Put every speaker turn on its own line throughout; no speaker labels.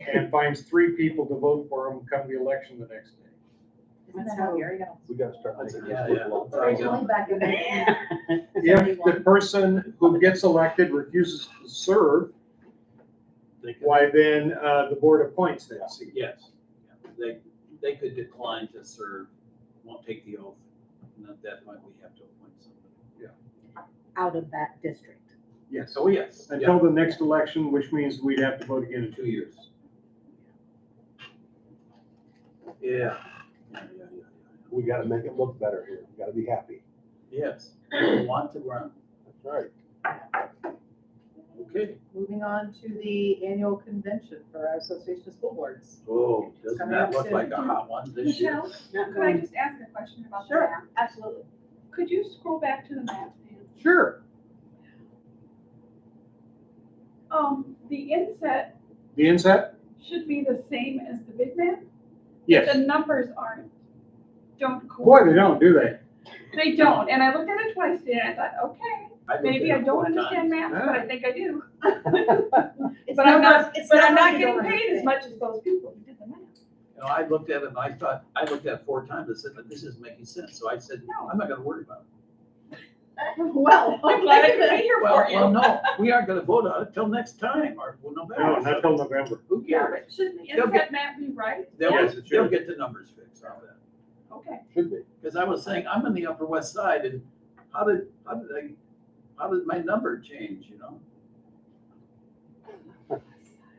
and finds three people to vote for him come the election the next day.
Isn't that how Gary got?
We gotta start making
Yeah,
this look
There you go.
Originally back in the.
If the person who gets elected refuses to serve,
They could-
why then, uh, the board appoints that seat.
Yes, they, they could decline to serve, won't take the oath, and at that point, we have to appoint somebody.
out of that district.
Yes.
So yes, yeah,
Until the next election, which means we'd have to vote again in
two years. Yeah. Yeah, yeah, yeah, yeah.
We gotta make it look better here. We gotta be happy.
Yes, we want to run,
That's right.
okay.
Moving on to the annual convention for our Association of School Boards.
Oh, doesn't that look like a hot one this year?
Michelle, could I just ask a question about the
Sure.
map?
Absolutely.
Could you scroll back to the map, Pam?
Sure.
Um, the inset
The inset?
should be the same as the big map?
Yes.
The numbers aren't, don't.
Boy, they
coincide.
don't, do they?
They don't, and I looked at it twice today, and I thought, okay,
looked
maybe
at
I
it
don't
four times.
understand maps, but I think I do.
It's
But I'm
numbers-
not,
it's
but
numbers
I'm not
you
getting
don't
paid as
understand.
much as those people who did the math.
You know, I looked at it and I thought, I looked at it four times, I said, "But this isn't making sense, so I said, no, I'm not gonna worry about it.
Well.
I'm glad I could be here
Well,
for
well,
you.
no, we aren't gonna vote on it till next time, or, well, no
No,
matter.
not till November.
Who
Yeah,
cares?
but shouldn't the
They'll get-
inset map be right?
They'll,
Yes, it
they'll
should.
get the numbers fixed on that.
Okay,
Should be.
Because I was saying, I'm on the Upper West Side and how did, how did I, how did my number change, you know?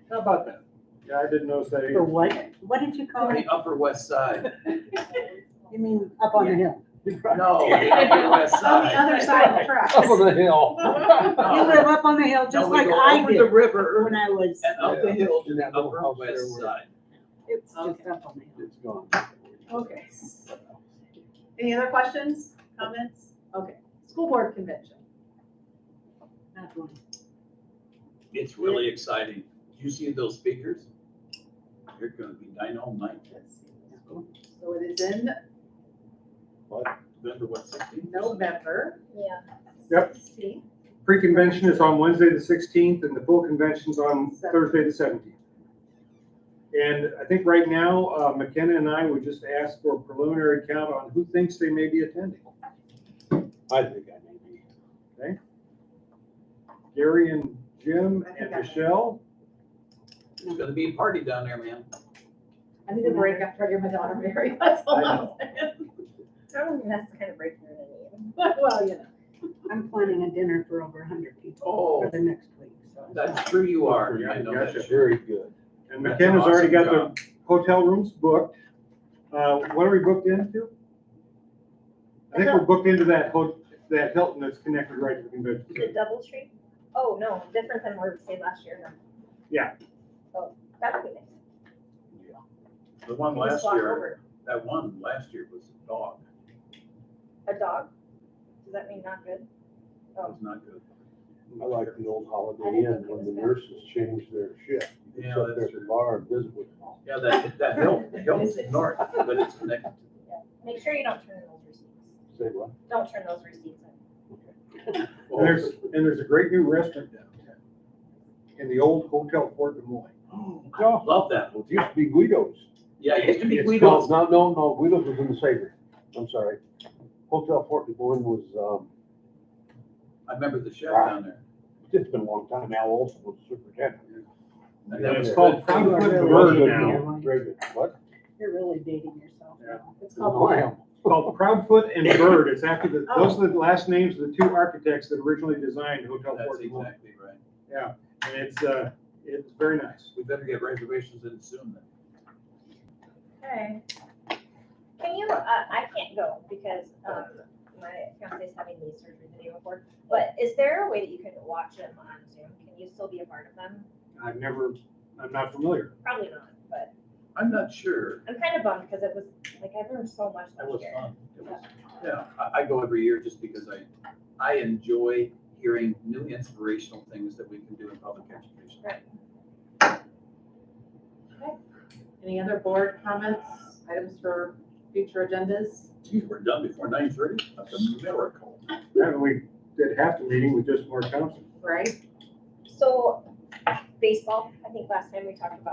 How about that? Yeah, I didn't notice that
For
either.
what? What did you call
On
it?
the Upper West Side.
You mean up on the hill?
No, the Upper West
On the
Side.
other side of the tracks.
Up on the hill.
You live up on the hill
No,
just
we
like
go
I
over the
did
river
when I was,
and up the hill to
In
the
that little
Upper
house
West
there where-
Side.
it's just up on the hill.
It's gone.
Okay. Any other questions, comments? Okay, school board convention.
Not one.
It's really exciting. You see those speakers? They're gonna be dynamite.
So it is in
Remember what sixteen?
November.
Yeah.
Yep.
16th.
Pre-convention is on Wednesday, the sixteenth, and the full convention's on Thursday, the seventeenth. And I think right now, uh, McKenna and I would just ask for a preliminary count on who thinks they may be attending.
I think I may be.
Gary and Jim and
I think I-
Michelle.
It's gonna be a party down there, man.
I need a break after I get my daughter married, that's all I'm saying.
That's kind of breaking the news.
Well, you know.
I'm planning a dinner for over a hundred people
Oh,
for the next week, so.
that's true you are.
Yeah,
I know that.
gotcha.
Very good.
And
That's
McKenna's
an
already
awesome
got the hotel rooms booked. Uh, What are we booked into? I think we're booked into that, ho- that Hilton that's connected right to the convention.
The
center.
double tree? Oh, no, different than what we stayed last year, no.
Yeah.
Oh, that would be nice.
The one
You just
last
walk
year,
over.
that one last year was a dog.
A dog? Does that mean not good?
It was not good.
I like the old Holiday Inn when the nurses changed their shift. You
Yeah,
can sit there
that's
at the
true.
bar and visit with them.
Yeah, that, that hill, the hill's north, but it's connected.
Make sure you don't turn in those receipts.
Say what?
Don't turn those receipts in.
And there's, and there's a great new restaurant downtown in the old Hotel Fort Des Moines.
I Love that.
Well, It used to be Guido's.
Yeah, it used to be
It's
Guido's.
called- No, no, no, Guido's was in the Savior. I'm sorry. Hotel Fort Des Moines was, um,
I remember the chef down there.
it's been a long time. Al Olson was superintendent.
And
Yeah,
that
it's
was
called
good food.
Frankfurt
Very
Burger
good
now.
meal. Very good. What?
You're really dating yourself now.
It's
Oh,
called.
Wow.
It's called Proudfoot and Bird. It's after the, those are the last names of the two architects that originally designed Hotel
That's
Fort Des Moines.
exactly right.
Yeah, and it's, uh, it's very nice.
We better get reservations in soon then.
Okay.
Can you, uh, I can't go because, um, my fiance's having knee surgery the day before, but is there a way that you can watch them on Zoom? Can you still be a part of them?
I've never, I'm not familiar.
Probably not, but
I'm not sure.
I'm kind of bummed because it was, like, I learned so much
That
last
was
year.
fun. It was- Yeah, I, I go every year just because I, I enjoy hearing new inspirational things that we can do in public education.
Right.
Any other board comments, items for future agendas?
Geez, we're done before nine thirty. That's a miracle.
Then we did half the meeting with just Mark Thompson.
Right?
So baseball, I think last time we talked about